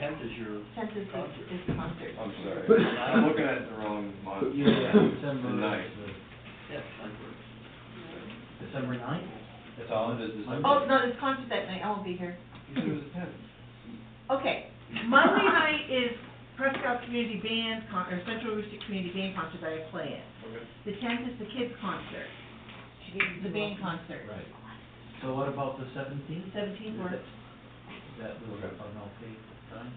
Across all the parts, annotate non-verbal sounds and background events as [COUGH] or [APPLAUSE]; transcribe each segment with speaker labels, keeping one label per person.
Speaker 1: tenth is your
Speaker 2: Tenth is,
Speaker 1: concert.
Speaker 2: the- is concert.
Speaker 3: I'm [LAUGHS] sorry, I'm looking at the wrong month.
Speaker 4: Yeah, yeah, [COUGHS] December.
Speaker 3: The ninth.
Speaker 1: Yeah, concert.
Speaker 4: December ninth?
Speaker 3: That's all it is, December.
Speaker 2: Oh, no, there's concert that night, I won't be here.
Speaker 3: You said it was the tenth.
Speaker 2: Okay, Monday night is Prescott Community Band, con- or Central Rooster Community Band Concert that I play at.
Speaker 3: Okay.
Speaker 2: The tenth is the kids' concert, the band concert.
Speaker 4: Right. So what about the seventeenth?
Speaker 2: Seventeenth works,
Speaker 4: That will,
Speaker 3: Okay.
Speaker 4: on okay time?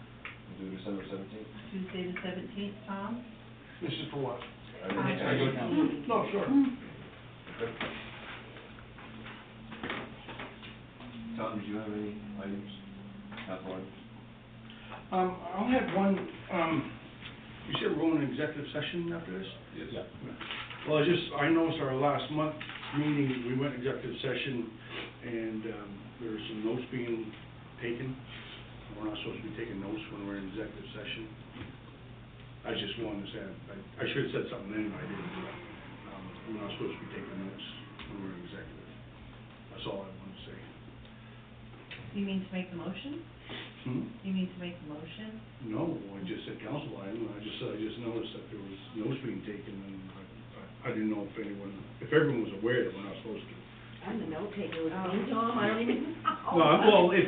Speaker 3: We'll Do December seventeenth?
Speaker 2: Tuesday the seventeenth, Tom?
Speaker 5: This is for what?
Speaker 3: I didn't-
Speaker 2: Aye.
Speaker 3: I didn't-
Speaker 5: No, sure.
Speaker 3: Tom, did you have any items? Have one?
Speaker 5: Um, I'll have one, um, you said we're going to executive session after this?
Speaker 3: Yes.
Speaker 5: Well, I just, I noticed our last month meeting, we went executive session, and, um, there were some notes being taken. We're not supposed to be taking notes when we're in executive session. I just wanted to say, I, I should've said something then, but I didn't, but, um, we're not supposed to be taking notes when we're in executive. That's all I wanted to say.
Speaker 2: You mean to make the motion?
Speaker 5: Hmm?
Speaker 2: You mean to make the motion?
Speaker 5: No, I just said council item, I just, I just noticed that there was notes being taken, and I, I didn't know if anyone, if everyone was aware that we're not supposed to.
Speaker 6: I'm the note taker with me, Tom, I don't even
Speaker 2: Oh.
Speaker 6: know.
Speaker 5: No, I- well, if,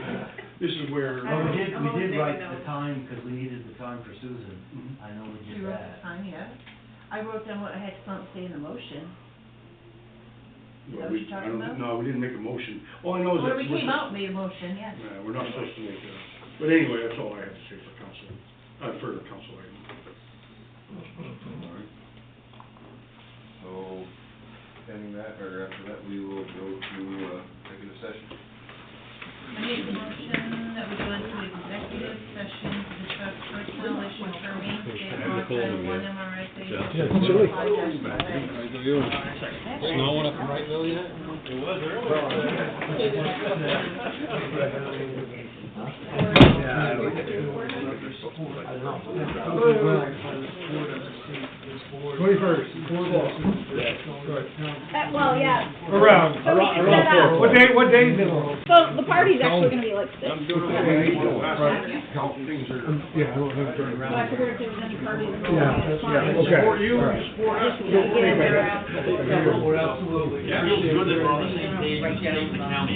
Speaker 5: this is where,
Speaker 2: I
Speaker 4: Well, we
Speaker 2: don't-
Speaker 4: did,
Speaker 2: I'm
Speaker 4: we
Speaker 2: only
Speaker 4: did
Speaker 2: taking
Speaker 4: write the
Speaker 2: notes.
Speaker 4: time, because we needed the time for Susan.
Speaker 5: Mhm.
Speaker 4: I know we
Speaker 2: You
Speaker 4: did
Speaker 2: wrote the
Speaker 4: [LAUGHS] that.
Speaker 2: time, yeah? I wrote down what I had to say in the motion. Is that
Speaker 5: well,
Speaker 2: what
Speaker 5: we,
Speaker 2: you're
Speaker 5: I
Speaker 2: talking about?
Speaker 5: don't, no, we didn't make a motion, all I know is that.
Speaker 2: Well, we
Speaker 5: we're-
Speaker 2: came out, and made a motion, yes.
Speaker 5: Yeah, we're not supposed to make a, but anyway, that's all I have to say for council, uh, for council item.
Speaker 3: So, pending that, or after that, we will go to, uh, executive session.
Speaker 2: I make a motion that we go into executive session to discuss personnel issues for me, state law, title one MRSA.
Speaker 7: Yeah, it's really Snowing up in Wrighttville yet?
Speaker 5: Twenty-first.
Speaker 8: Uh, well, yeah.
Speaker 5: Around,
Speaker 8: So we can set up.
Speaker 5: what day, what day is it?
Speaker 8: So the party's actually gonna be like six.
Speaker 5: Things are.
Speaker 7: Yeah, I don't have to turn
Speaker 8: So
Speaker 7: around.
Speaker 8: I figured if there was any party.
Speaker 7: Yeah, that's- yeah, okay.
Speaker 5: Support you, support us.
Speaker 8: Just get it there after.
Speaker 4: absolutely.
Speaker 1: Yeah, feels good that we're on the same page, we're staying in town,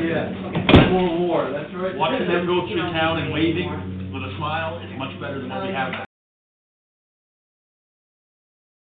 Speaker 1: yeah.
Speaker 4: Yeah, war, war, that's right.
Speaker 1: Watching them go through town and waving with a smile is much better than what we have